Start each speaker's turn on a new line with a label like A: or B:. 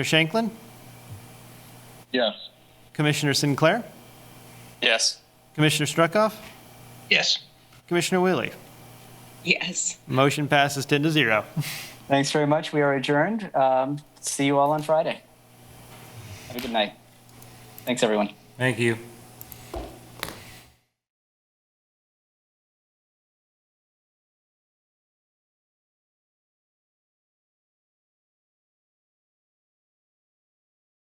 A: Shanklin?
B: Yes.
A: Commissioner Sinclair?
B: Yes.
A: Commissioner Struckoff?
B: Yes.
A: Commissioner Willie?
C: Yes.
A: Motion passes 10 to 0.
D: Thanks very much. We are adjourned. Um, see you all on Friday. Have a good night. Thanks, everyone.
E: Thank you.